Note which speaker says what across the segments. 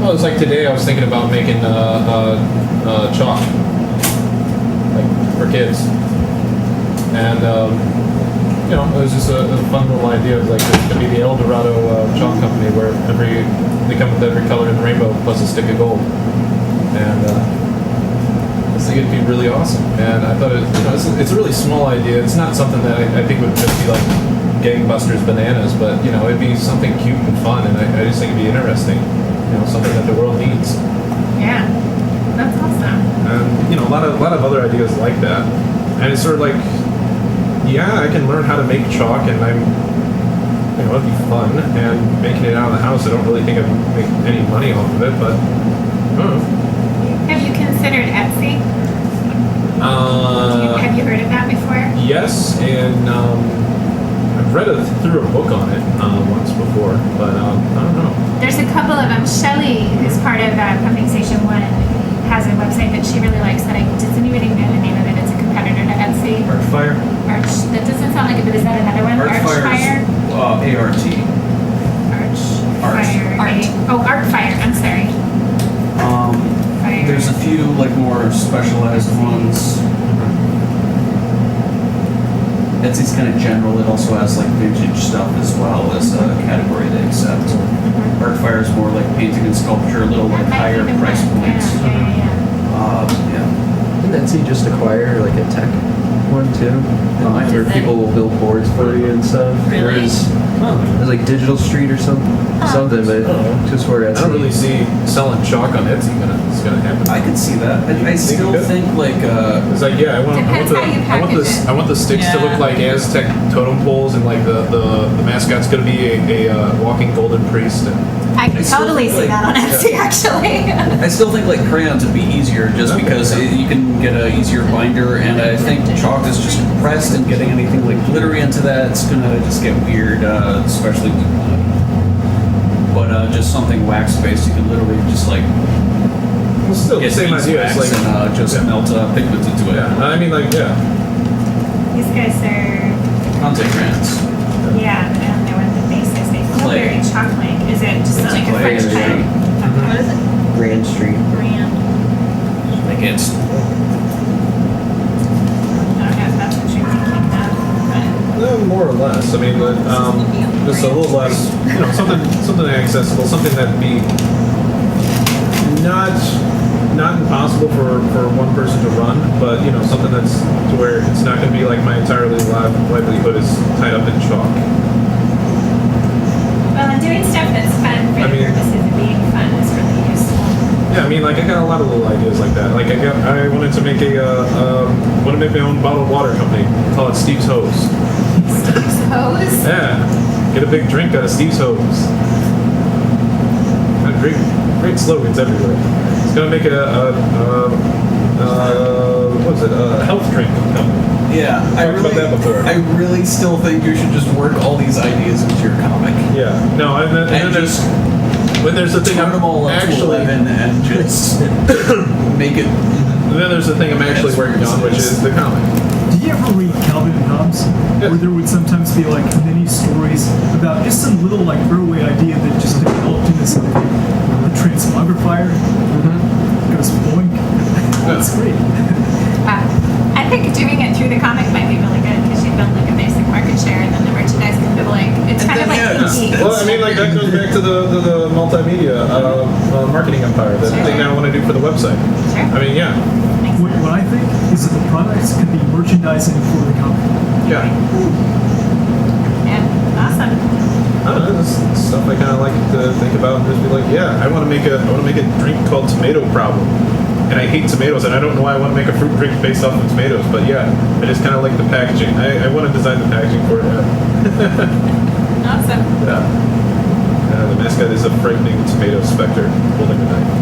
Speaker 1: well, it's like today I was thinking about making uh, uh, uh, chalk like, for kids. And, um, you know, it was just a, a fun little idea. It was like, this could be the El Dorado uh, Chalk Company where every they come with every color in the rainbow plus a stick of gold. And uh, I was thinking it'd be really awesome. And I thought it, you know, it's, a, it's a really small idea. It's not something that I, I think would just be like gangbusters bananas, but, you know, it'd be something cute and fun. And I, I just think it'd be interesting. You know, something that the world needs.
Speaker 2: Yeah, that's awesome.
Speaker 1: And you know, a lot of a lot of other ideas like that. And it's sort of like, yeah, I can learn how to make chalk, and I'm, you know, it'd be fun. And making it out of the house, I don't really think I'd make any money off of it, but. I don't know.
Speaker 2: Have you considered Etsy?
Speaker 1: Uh,
Speaker 2: Have you heard of that before?
Speaker 1: Yes, and um, I've read a, through a book on it uh, once before, but um, I don't know.
Speaker 2: There's a couple of them. Shelly, who's part of uh, Pumping Station One, has a website that she really likes. That I does anybody know the name of it? It's a competitor to Etsy.
Speaker 3: Artfire.
Speaker 2: Arch. That doesn't sound like it, but is that another one?
Speaker 3: Artfire
Speaker 2: Archfire.
Speaker 3: is uh, ART.
Speaker 2: Arch.
Speaker 3: Arch.
Speaker 2: Fire.
Speaker 4: Art.
Speaker 2: Oh, Artfire. I'm sorry.
Speaker 3: Um,
Speaker 2: Fire.
Speaker 3: there's a few like more specialized ones. Etsy's kind of general. It also has like vintage stuff as well as a category they accept.
Speaker 2: Mhm.
Speaker 3: Artfire is more like painting and sculpture, a little like
Speaker 2: That might be
Speaker 3: higher
Speaker 2: the
Speaker 3: price
Speaker 2: one.
Speaker 3: points.
Speaker 2: Yeah, yeah, yeah, yeah.
Speaker 3: Uh, yeah.
Speaker 5: Didn't Etsy just acquire like a tech one too?
Speaker 3: Oh, I
Speaker 5: where
Speaker 4: did.
Speaker 5: people will build boards for you and stuff.
Speaker 4: Really?
Speaker 5: Whereas- There's like Digital Street or something, something, but
Speaker 1: Oh.
Speaker 5: just where
Speaker 1: I
Speaker 5: Etsy.
Speaker 1: don't really see selling chalk on Etsy gonna it's gonna happen.
Speaker 3: I could see that. I, I
Speaker 1: Think
Speaker 3: still
Speaker 1: it?
Speaker 3: think like uh,
Speaker 1: It's like, yeah, I want, I want
Speaker 2: Depends
Speaker 1: the,
Speaker 2: how you
Speaker 1: I want the,
Speaker 2: package it.
Speaker 1: I want the sticks to
Speaker 4: Yeah.
Speaker 1: look like Aztec totem poles, and like the the, the mascot's gonna be a, a uh, walking golden priest. And,
Speaker 4: I can
Speaker 3: It's still
Speaker 4: totally see
Speaker 3: like-
Speaker 4: that on Etsy, actually.
Speaker 3: I still think like crayons would be easier just
Speaker 1: Okay.
Speaker 3: because it, you can get a easier binder, and I think chalk is just compressed, and getting anything like glittery into that, it's gonna just get weird, uh, especially. with, uh, But uh, just something wax based, you can literally just like
Speaker 1: well, still, the
Speaker 3: get
Speaker 1: same
Speaker 3: beeswax
Speaker 1: idea. It's like,
Speaker 3: and uh, just
Speaker 1: yeah.
Speaker 3: melt uh, pigment into it.
Speaker 1: yeah, I mean, like, yeah,
Speaker 2: These guys are.
Speaker 3: Conte crayons.
Speaker 2: Yeah, but I don't know what the base is. They feel
Speaker 3: Clay.
Speaker 2: very chalk-like. Is it just
Speaker 3: It's
Speaker 2: like a
Speaker 3: clay,
Speaker 2: French
Speaker 3: yeah.
Speaker 2: clay?
Speaker 1: Mhm.
Speaker 2: What is it?
Speaker 5: Grand Street.
Speaker 2: Brand.
Speaker 3: Like it's
Speaker 2: I don't know if that's what you're thinking of.
Speaker 1: no, more or less. I mean, but, um, just a little less, you know, something something accessible, something that'd be not not impossible for for one person to run, but you know, something that's to where it's not gonna be like my entirely li- livelihood is tied up in chalk.
Speaker 2: But, well, and doing stuff that's fun for
Speaker 1: I
Speaker 2: the
Speaker 1: mean-
Speaker 2: purposes of being fun is really useful.
Speaker 1: Yeah, I mean, like I got a lot of little ideas like that. Like I got, I wanted to make a, uh, um, want to make my own bottled water company. Call it Steve's Hose.
Speaker 2: Steve's hose.
Speaker 1: Yeah, get a big drink out of Steve's Hose. Got Great, great slogans everywhere. It's gonna make a, a, um uh, what is it? A health drink company.
Speaker 3: yeah. I
Speaker 1: Talked about
Speaker 3: really,
Speaker 1: that before.
Speaker 3: I really still think you should just work all these ideas into your comic.
Speaker 1: Yeah. No, and then, and
Speaker 3: And
Speaker 1: then there's
Speaker 3: just
Speaker 1: when there's the thing
Speaker 3: turn
Speaker 1: I'm
Speaker 3: them all up to
Speaker 1: actually.
Speaker 3: 11 and just make it.
Speaker 1: And then there's the thing I'm actually working on, which is the comic.
Speaker 6: Did you ever read Calvin and Hobbes?
Speaker 1: Yeah.
Speaker 6: Where there would sometimes be like mini stories about just some little like throwaway idea that just developed into something. The transmogrifier goes boink. That's great.
Speaker 2: Wow. Uh, I think doing it through the comic might be really good because you build like a basic market share and then the merchandise can be like it's
Speaker 3: And
Speaker 2: kind of
Speaker 3: then,
Speaker 2: like E
Speaker 3: yeah, it's-
Speaker 2: indie.
Speaker 1: Well, I mean, like that goes back to the the, the multimedia uh, uh, marketing empire, the thing that I want to do for the website.
Speaker 2: Sure.
Speaker 1: I mean, yeah,
Speaker 2: Makes
Speaker 6: What,
Speaker 2: sense.
Speaker 6: what I think is that the products can be merchandising for the company.
Speaker 1: yeah.
Speaker 2: Yeah. Awesome.
Speaker 1: I don't know, this is stuff I kind of like to think about and just be like, yeah, I want to make a I want to make a drink called Tomato Problem, and I hate tomatoes, and I don't know why I want to make a fruit drink based off of tomatoes, but yeah, I just kind of like the packaging. I, I want to design the packaging for it. Yeah.
Speaker 2: Awesome.
Speaker 1: yeah. Uh, the mascot is a frightening tomato specter holding a knife.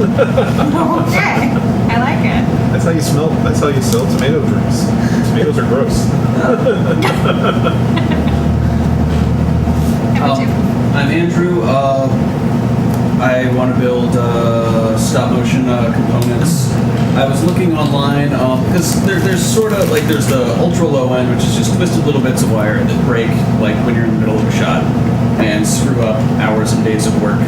Speaker 2: Okay. I like it.
Speaker 1: That's how you smell. That's how you sell tomato drinks. Tomatoes are gross.
Speaker 2: How about
Speaker 3: Um,
Speaker 2: you?
Speaker 3: I'm Andrew. Uh, I want to build uh, stop motion uh, components. I was looking online um, because there, there's sort of like there's the ultra low end, which is just twisted little bits of wire that break like when you're in the middle of a shot and screw up hours and days of work.